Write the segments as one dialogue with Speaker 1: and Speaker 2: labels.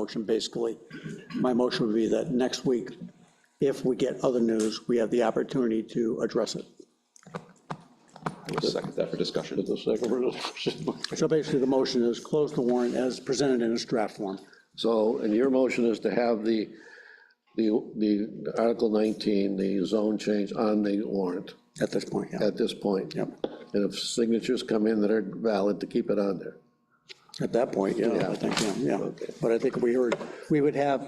Speaker 1: motion, basically. My motion would be that next week, if we get other news, we have the opportunity to address it.
Speaker 2: I'll Second that for discussion.
Speaker 3: The second one is-
Speaker 1: So basically, the motion is close the warrant as presented in its draft form.
Speaker 3: So, and your motion is to have the, the, the Article 19, the zone change on the warrant
Speaker 1: At this point, yeah,
Speaker 3: at this point?
Speaker 1: Yep.
Speaker 3: And if signatures come in that are valid, to keep it on there.
Speaker 1: at that point, yeah, I
Speaker 3: Yeah.
Speaker 1: think, yeah, yeah.
Speaker 3: Okay.
Speaker 1: But I think we heard, we would have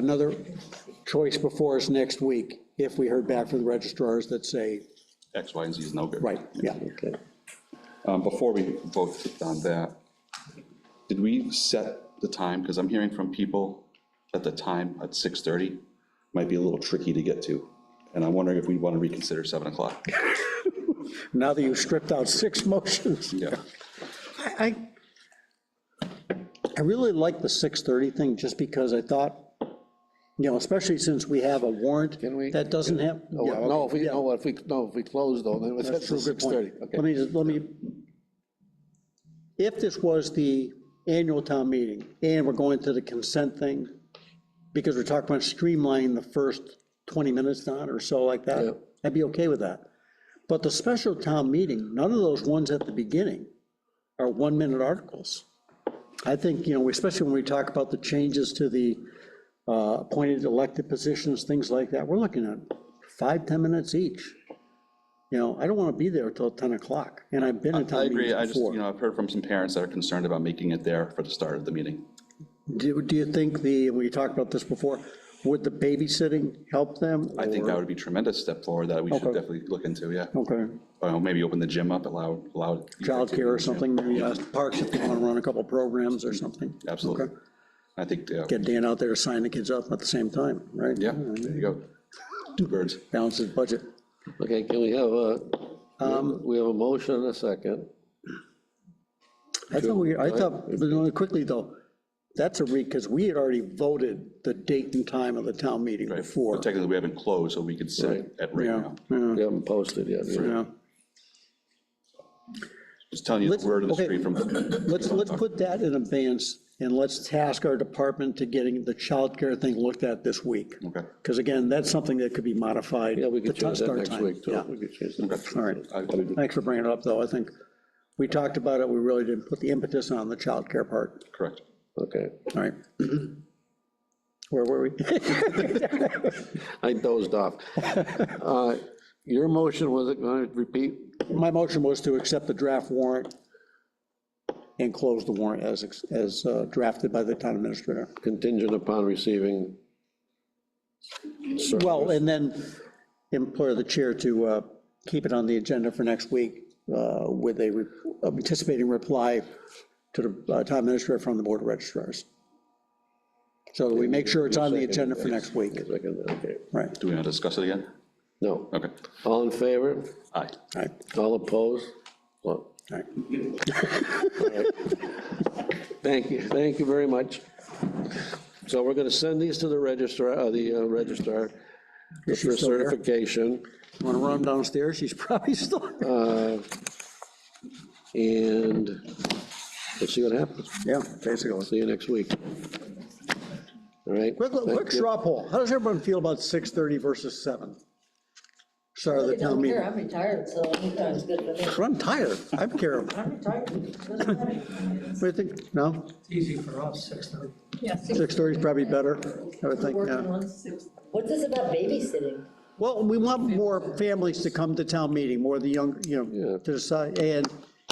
Speaker 1: another choice before us next week if we heard back from the registrars that say,
Speaker 2: X, Y, and Z is no good.
Speaker 1: right, yeah.
Speaker 3: Okay.
Speaker 2: Um, Before we vote on that, did we set the time? Because I'm hearing from people that the time at 6:30 might be a little tricky to get to. And I'm wondering if we want to reconsider 7 o'clock.
Speaker 1: Now that you've stripped out six motions.
Speaker 2: Yeah.
Speaker 1: I, I- I really like the 6:30 thing, just because I thought, you know, especially since we have a warrant
Speaker 3: Can we-
Speaker 1: that doesn't have.
Speaker 3: Oh,
Speaker 1: yeah,
Speaker 3: No, if we,
Speaker 1: yeah,
Speaker 3: no, if we, no, if we close though, then it's
Speaker 1: That's true, good point.
Speaker 3: 6:30.
Speaker 1: Let
Speaker 3: Okay.
Speaker 1: me, just let me, if this was the annual town meeting, and we're going to the consent thing, because we're talking about streamlining the first 20 minutes on or so like
Speaker 3: Yeah.
Speaker 1: that, I'd be okay with that. But the special town meeting, none of those ones at the beginning are one-minute articles. I think, you know, especially when we talk about the changes to the uh, appointed elected positions, things like that, we're looking at five, 10 minutes each. You know, I don't want to be there till 10 o'clock, and I've been in
Speaker 2: I
Speaker 1: town meetings
Speaker 2: agree. I just, you
Speaker 1: before.
Speaker 2: know, I've heard from some parents that are concerned about making it there for the start of the meeting.
Speaker 1: Do do you think the, and we talked about this before, would the babysitting help them?
Speaker 2: I think that would be a tremendous step forward that we should
Speaker 1: Okay.
Speaker 2: definitely look into, yeah.
Speaker 1: Okay,
Speaker 2: Or maybe open the gym up, allow, allow.
Speaker 1: childcare or something, maybe uh, parks if they want to run a couple programs or something.
Speaker 2: Absolutely.
Speaker 1: Okay.
Speaker 2: I think, yeah,
Speaker 1: Get Dan out there to sign the kids up at the same time, right?
Speaker 2: yeah, there you go. Two birds.
Speaker 1: Balance his budget.
Speaker 3: Okay, can we have
Speaker 1: Um,
Speaker 3: a, we have a motion and a second.
Speaker 1: I thought we, I thought, but only quickly though, that's a re, because we had already voted the date and time of the town meeting
Speaker 2: Right.
Speaker 1: before.
Speaker 2: But Technically, we haven't closed, so we could set it at right
Speaker 1: Yeah,
Speaker 2: now.
Speaker 1: yeah,
Speaker 3: We haven't posted yet.
Speaker 1: yeah.
Speaker 2: Just telling you
Speaker 1: Let's-
Speaker 2: the word of the
Speaker 1: okay.
Speaker 2: street from,
Speaker 1: Let's, let's put that in advance and let's task our department to getting the childcare thing looked at this week.
Speaker 2: okay.
Speaker 1: Because again, that's something that could be modified.
Speaker 3: Yeah, we
Speaker 1: the
Speaker 3: could change that
Speaker 1: start
Speaker 3: next
Speaker 1: time.
Speaker 3: week too.
Speaker 1: Yeah.
Speaker 3: We could change that.
Speaker 1: All right.
Speaker 2: I- I-
Speaker 1: Thanks for bringing it up though. I think we talked about it. We really didn't put the impetus on the childcare part.
Speaker 2: Correct.
Speaker 3: Okay.
Speaker 1: All right. Where were we?
Speaker 3: I dozed off. Uh, Your motion was, it going to repeat,
Speaker 1: My motion was to accept the draft warrant and close the warrant as, as uh, drafted by the town administrator.
Speaker 3: contingent upon receiving,
Speaker 1: Well, and then implore the chair to uh, keep it on the agenda for next week uh, with a re- anticipating reply to the uh, town administrator from the board of registrars. So that we make sure it's on the agenda for next week,
Speaker 3: second, okay,
Speaker 1: right?
Speaker 2: Do we want to discuss it again?
Speaker 3: no.
Speaker 2: Okay.
Speaker 3: All in favor?
Speaker 2: Aye.
Speaker 1: All right,
Speaker 3: All opposed? Well,
Speaker 1: all right.
Speaker 3: Thank you, thank you very much. So we're going to send these to the registrar, uh, the uh, registrar for
Speaker 1: Is she still there?
Speaker 3: certification.
Speaker 1: Want to run downstairs? She's probably still,
Speaker 3: Uh, And we'll see what happens.
Speaker 1: yeah, basically.
Speaker 3: See you next week. All right?
Speaker 1: Quick, quick straw poll. How does everyone feel about 6:30 versus 7? Start of the
Speaker 4: Really
Speaker 1: town
Speaker 4: don't care.
Speaker 1: meeting.
Speaker 4: I'm retired, so anytime's good for me.
Speaker 1: I'm tired. I'm careful.
Speaker 4: I'm retired. Doesn't matter.
Speaker 1: What do you think? No?
Speaker 5: It's easy for us, 6:30.
Speaker 4: Yeah, six-
Speaker 1: 6:30 is probably better, I would think,
Speaker 4: Working
Speaker 1: yeah.
Speaker 4: on six- What's this about babysitting?
Speaker 1: Well, we want more families to come to town meeting, more of the young, you know,
Speaker 3: Yeah.
Speaker 1: to decide, and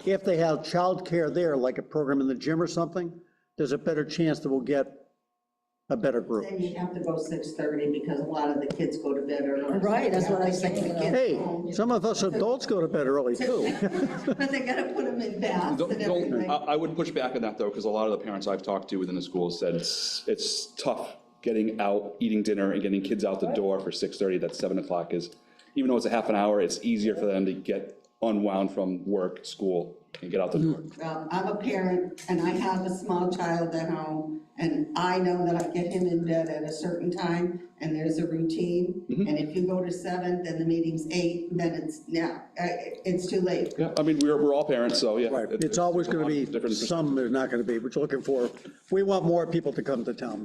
Speaker 1: if they have childcare there, like a program in the gym or something, there's a better chance that we'll get a better group.
Speaker 6: And you have to go 6:30 because a lot of the kids go to bed early.
Speaker 4: Right, that's what I was
Speaker 6: Like the
Speaker 4: thinking.
Speaker 6: kids
Speaker 1: Hey,
Speaker 6: home.
Speaker 1: some of us adults go to bed early, too.
Speaker 6: But they gotta put them in baths
Speaker 2: Don't-
Speaker 6: and
Speaker 2: don't- uh,
Speaker 6: everything.
Speaker 2: I I would push back on that, though, because a lot of the parents I've talked to within the school said it's, it's tough getting out, eating dinner, and getting kids out the door for 6:30, that 7 o'clock is, even though it's a half an hour, it's easier for them to get unwound from work, school, and get out the door.
Speaker 6: Um, I'm a parent and I have a small child at home and I know that I get him in bed at a certain time and there's a routine.
Speaker 2: Mm-hmm.
Speaker 6: And if you go to seven, then the meeting's eight, then it's now, uh, it's too late.
Speaker 2: Yeah, I mean, we're, we're all parents, so, yeah.
Speaker 1: Right, it's always
Speaker 2: a lot
Speaker 1: gonna
Speaker 2: of different
Speaker 1: be, some there's not gonna be, which looking for, we want more people to come to town